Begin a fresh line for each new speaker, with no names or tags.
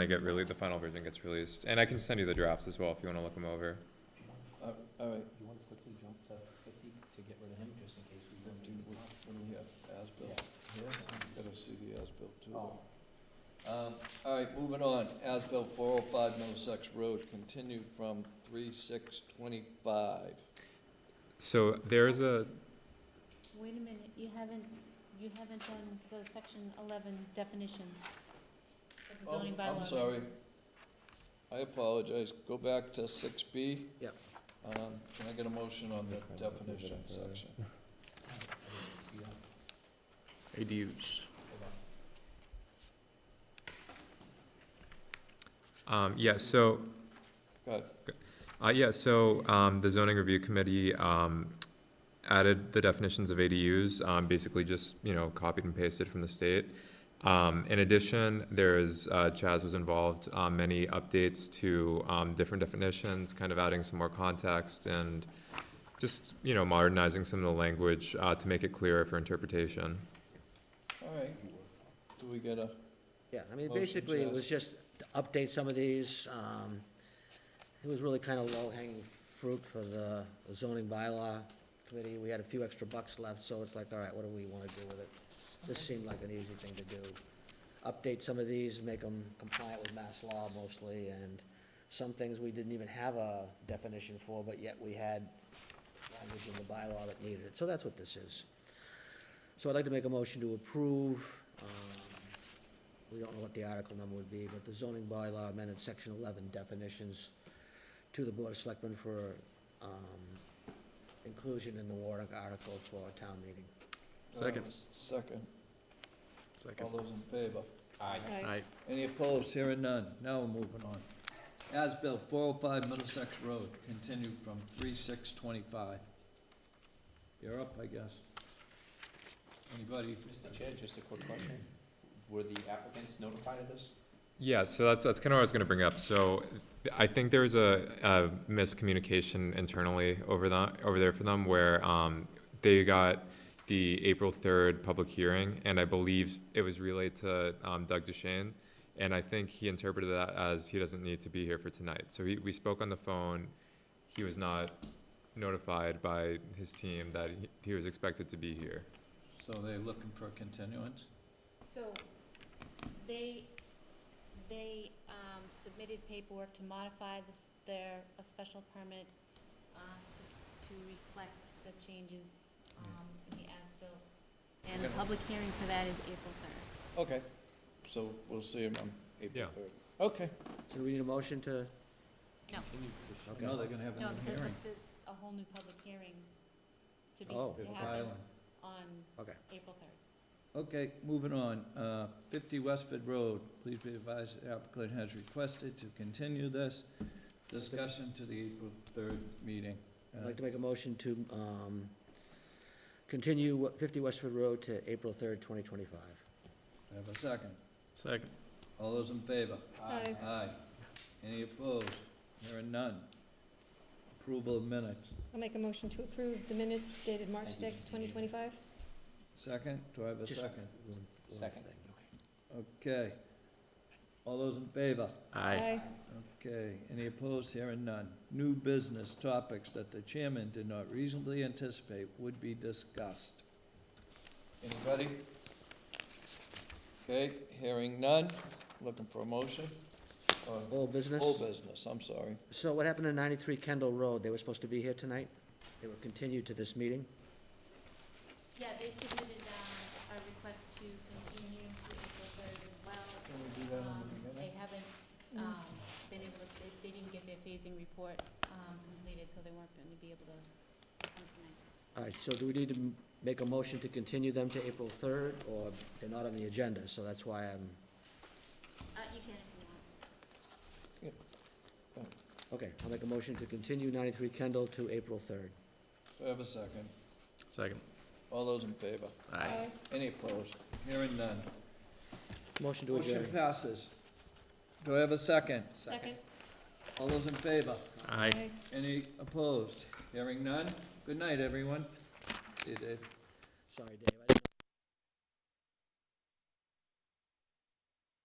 They get really, the final version gets released, and I can send you the drafts as well if you wanna look them over.
All right,
You want to quickly jump to fifty to get rid of him, just in case we
then
want
do we,
to.
when we have as-built, gotta see the as-built too.
Oh,
Um, all right, moving on, as-built four oh five Middlesex Road, continued from three six twenty-five.
So there's a,
Wait a minute, you haven't, you haven't done the section eleven definitions of the
Oh,
zoning bylaw.
I'm sorry.
amendments.
I apologize, go back to six B.
Yep.
Um, can I get a motion on the definition section?
Oh.
ADUs.
um, yeah, so,
Go ahead.
Uh, yeah, so, um, the zoning review committee, um, added the definitions of ADUs, um, basically just, you know, copied and pasted from the state. Um, in addition, there's, uh, Chaz was involved, um, many updates to, um, different definitions, kind of adding some more context and just, you know, modernizing some of the language, uh, to make it clearer for interpretation.
All right, do we get a, uh,
Yeah, I mean,
Motion,
basically, it
Chaz.
was just to update some of these. um, It was really kind of low-hanging fruit for the zoning bylaw committee. We had a few extra bucks left, so it's like, all right, what do we want to do with it? This seemed like an easy thing to do. Update some of these, make them compliant with mass law mostly, and some things we didn't even have a definition for, but yet we had language in the bylaw that needed it. So that's what this is. So I'd like to make a motion to approve, um, we don't know what the article number would be, but the zoning bylaw amended section eleven definitions to the Board of Selectmen for, um, inclusion in the warrant article for a town meeting.
Second. second? Second. All those in favor?
Right.
Any opposed? Hearing none. Now we're moving on. As-built, 405 Middlesex Road, continued from 3625. You're up, I guess. Anybody?
Mr. Chair, just a quick question. Were the applicants notified of this?
Yeah, so that's, that's kind of what I was gonna bring up, so I think there was a, a miscommunication internally over that, over there for them, where, um, they got the April third public hearing, and I believe it was relayed to, um, Doug Duchesne, and I think he interpreted that as he doesn't need to be here for tonight, so he, we spoke on the phone, he was not notified by his team that he, he was expected to be here.
So they're looking for a continuance?
So, they, they um, submitted paperwork to modify this, their, a special permit uh, to, to reflect the changes um, in the as-built. And the
Okay.
public hearing for that is April third.
Okay. So we'll see them on April
Yeah.
3rd. Okay.
So do we need a motion to?
No.
Okay.
No, they're gonna have
No,
another
because
hearing.
the- there's a whole new public hearing to be,
Oh,
to
They're
happen
filing.
on
Okay.
April third.
Okay, moving on. Uh, 50 Westford Road, please be advised the applicant has requested to continue this discussion to the April 3rd meeting.
I'd
Uh,
like to make a motion to, um, continue fifty Westford Road to April third, twenty twenty-five.
Have a second?
Second.
All those in favor?
Aye.
Aye. Any opposed? There are none. Approval of minutes.
I'll make a motion to approve the minutes dated March sixth, twenty twenty-five.
Second, do I have a
Just-
second?
Second.
Okay. All those in favor?
Aye.
Okay, any opposed? There are none. New business topics that the chairman did not reasonably anticipate would be discussed. Anybody? Okay, hearing none. Looking for a motion? Or
Old business?
Full business, I'm sorry.
So what happened to ninety-three Kendall Road? They were supposed to be here tonight? They were continued to this meeting?
Yeah, they submitted um, a request to continue to April third as well.
Can we do that on
Um,
the
They
beginning?
haven't,
Mm.
um, been able to, they, they didn't get their phasing report, um, completed, so they weren't gonna be able to come tonight.
All right, so do we need to m- make a motion to continue them to April third, or they're not on the agenda, so that's why I'm,
Uh, you can if you want.
okay, I'll make a motion to continue ninety-three Kendall to April third.
Do I have a second?
Second.
All those in favor? Any opposed? Hearing none.
Motion to
Motion
adjourn.
passes. Do I have a second?
Second.
All those in favor?
Aye.
Aye.
Any opposed? Hearing none? Good night, everyone. See you, Dave.
Sorry, Dave.